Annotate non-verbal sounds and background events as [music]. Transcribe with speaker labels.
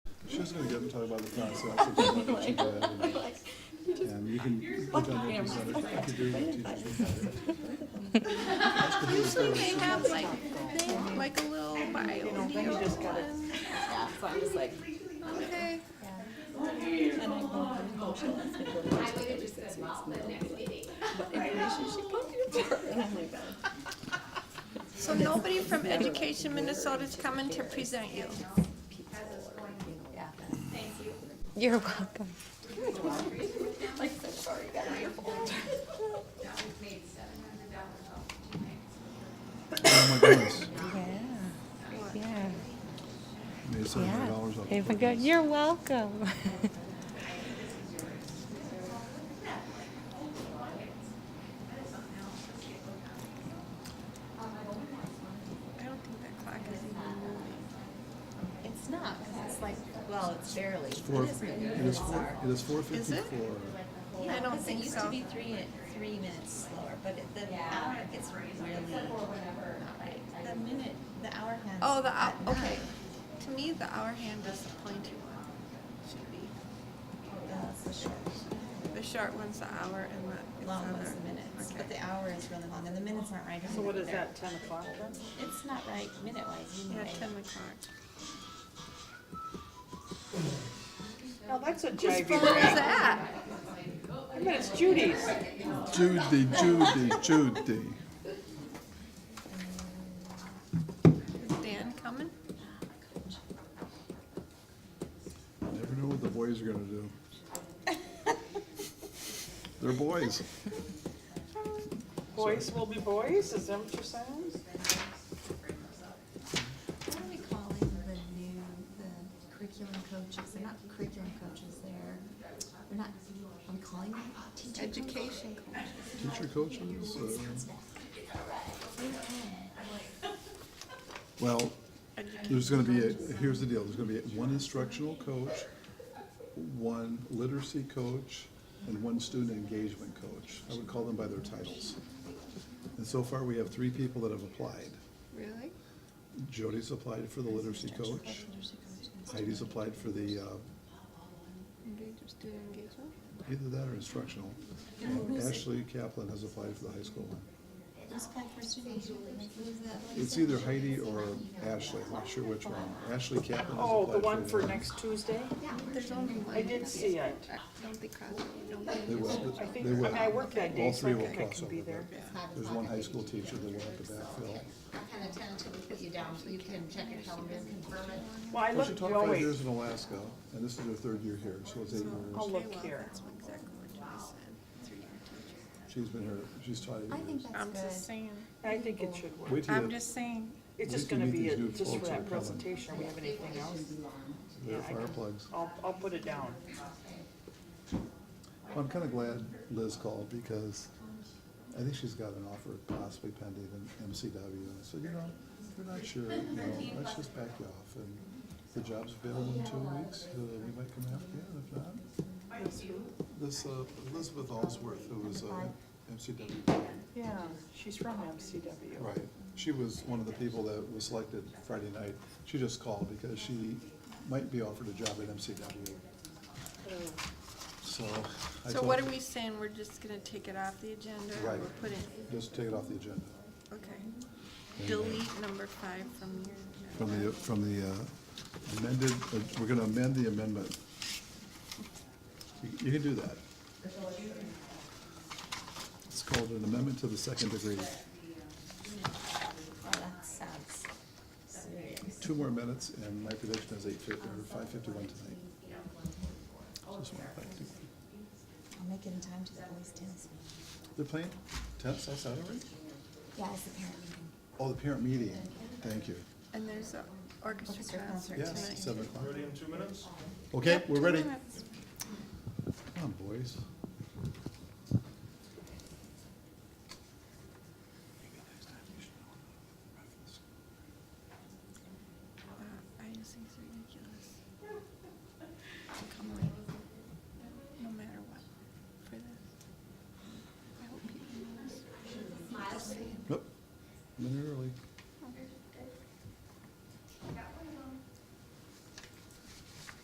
Speaker 1: just gonna get them talking about the process. if they're not too bad, and- And you can. put that in the presenter. You can do it with
Speaker 2: Usually they have like, they have like a little bio. deal.
Speaker 3: Yeah, so I'm just like,
Speaker 2: Okay.
Speaker 3: and I won't have emotion, it's gonna go to my check every six weeks, and it'll be like, what information she posted for? And I'm like,
Speaker 2: So nobody from Education Minnesota's coming to present you.
Speaker 3: yeah.
Speaker 4: You're welcome.
Speaker 3: Like, so sorry, you got a beautiful.
Speaker 1: Oh my goodness.
Speaker 4: Yeah, yeah,
Speaker 1: Made seven hundred
Speaker 4: yeah.
Speaker 1: dollars off.
Speaker 4: Have a good- You're welcome. [laughs]
Speaker 2: I don't think that clock is even moving.
Speaker 3: It's not, 'cause it's like, well, it's barely.
Speaker 1: Four,
Speaker 3: It
Speaker 1: it
Speaker 3: is barely.
Speaker 1: is four, it is four
Speaker 2: Is it?
Speaker 1: fifty-four.
Speaker 3: Yeah,
Speaker 2: I don't
Speaker 3: 'cause
Speaker 2: think
Speaker 3: It used
Speaker 2: so.
Speaker 3: to be three, three minutes slower, but it, the hour gets really, not right. The minute, the hour hand.
Speaker 2: Oh, the, hou- okay. To me, the hour hand is the pointy one. Should be.
Speaker 3: That's the short.
Speaker 2: The short one's the hour and the. it's
Speaker 3: Long
Speaker 2: on
Speaker 3: was
Speaker 2: there.
Speaker 3: the minutes,
Speaker 2: Okay.
Speaker 3: but the hour is really long, and the minutes aren't right.
Speaker 5: So what is
Speaker 3: They're-
Speaker 5: that, ten o'clock then?
Speaker 3: It's not right minute-wise,
Speaker 2: Yeah,
Speaker 3: anyway.
Speaker 2: ten o'clock.
Speaker 5: Oh, that's a
Speaker 2: Whose phone is
Speaker 5: jivey.
Speaker 2: that?
Speaker 5: I bet it's Judy's.
Speaker 1: Judy, Judy, Judy.
Speaker 2: Is Dan coming?
Speaker 1: Never know what the boys are gonna do. They're boys.
Speaker 5: Boys will be boys, is that what you're saying?
Speaker 3: What are we calling the new, the curriculum coaches? They're not curriculum coaches, they're, they're not, are we calling them teacher?
Speaker 2: Education.
Speaker 1: Teacher coaches, uh, well, there's gonna be, a- here's the deal, there's gonna be one instructional coach, one literacy coach, and one student engagement coach. I would call them by their titles. And so far, we have three people that have applied.
Speaker 2: Really?
Speaker 1: Jody's applied for the literacy coach. Heidi's applied for the, uh,
Speaker 2: Engage- Student engagement?
Speaker 1: either that or instructional. And Ashley Kaplan has applied for the high school one.
Speaker 3: Who's applied for student engagement? Who's that?
Speaker 1: It's either Heidi or Ashley, I'm not sure which one. Ashley Kaplan has
Speaker 5: Oh,
Speaker 1: applied
Speaker 5: the one for
Speaker 1: the-
Speaker 5: next Tuesday?
Speaker 2: There's only one.
Speaker 5: I did see it.
Speaker 2: Don't be crossing, don't be.
Speaker 1: They will,
Speaker 5: I
Speaker 1: they
Speaker 5: think, I
Speaker 1: will.
Speaker 5: mean, I work that day,
Speaker 1: All
Speaker 5: so
Speaker 1: three
Speaker 5: I
Speaker 1: will
Speaker 5: think I
Speaker 1: cross
Speaker 5: can
Speaker 1: over.
Speaker 5: be there.
Speaker 1: There's one high school teacher that will have to backfill.
Speaker 6: I kind of tentatively put you down, so you can check your calendar and confirm it.
Speaker 5: Well, I
Speaker 1: Well, she
Speaker 5: looked,
Speaker 1: taught
Speaker 5: oh,
Speaker 1: five
Speaker 5: wait,
Speaker 1: years in Alaska, and this is her third year here, so it's eight
Speaker 5: I'll
Speaker 1: years.
Speaker 2: Okay,
Speaker 5: look
Speaker 2: well,
Speaker 5: here.
Speaker 2: That's exactly what I said. Three-year teacher.
Speaker 1: She's been here, she's taught
Speaker 3: I
Speaker 1: eight
Speaker 3: think
Speaker 1: years.
Speaker 3: that's
Speaker 2: I'm
Speaker 3: good.
Speaker 2: just saying,
Speaker 5: I think it should work.
Speaker 1: Wait till
Speaker 2: I'm
Speaker 1: you,
Speaker 2: just saying,
Speaker 5: It's just
Speaker 1: we can
Speaker 5: gonna
Speaker 1: meet
Speaker 5: be,
Speaker 1: these
Speaker 5: a-
Speaker 1: new
Speaker 5: just for
Speaker 1: folks that are
Speaker 5: that
Speaker 1: coming.
Speaker 5: presentation, we have anything else?
Speaker 1: there are
Speaker 5: yeah, I
Speaker 1: fire
Speaker 5: can-
Speaker 1: plugs.
Speaker 5: I'll, I'll put it down.
Speaker 1: I'm kind of glad Liz called, because I think she's got an offer possibly pending in MCW. And I said, you know, we're not sure, you know, let's just back you off. And the job's available in two weeks, uh, we might come after you, and if not, This uh, Elizabeth Allsworth, who was uh, MCW,
Speaker 5: Yeah, she's from MCW.
Speaker 1: right, she was one of the people that was selected Friday night. She just called because she might be offered a job at MCW,
Speaker 5: Oh.
Speaker 1: so. I
Speaker 2: so
Speaker 1: told
Speaker 2: what
Speaker 1: her,
Speaker 2: are we saying, we're just gonna take it off the agenda?
Speaker 1: Right.
Speaker 2: We're putting,
Speaker 1: Just take it off the agenda.
Speaker 2: okay. Delete number five from your.
Speaker 1: From the, from the uh, amended, uh, we're gonna amend the amendment. You- You can do that. It's called an amendment to the second degree.
Speaker 3: Oh, that sounds serious.
Speaker 1: Two more minutes, and my prediction is eight fifty, or five fifty-one tonight. Just wanna thank you.
Speaker 3: I'll make it in time to the boys' tennis meeting.
Speaker 1: They're playing tennis outside already?
Speaker 3: Yeah, it's the parent meeting.
Speaker 1: Oh, the parent meeting, thank you.
Speaker 2: And there's a orchestra
Speaker 3: Orchestra
Speaker 2: concert
Speaker 3: concert
Speaker 1: Yes,
Speaker 2: tonight.
Speaker 1: seven o'clock.
Speaker 7: Ready in two minutes?
Speaker 1: Okay,
Speaker 2: Yep, uh,
Speaker 1: we're
Speaker 2: two
Speaker 1: ready.
Speaker 2: minutes.
Speaker 1: Come on, boys.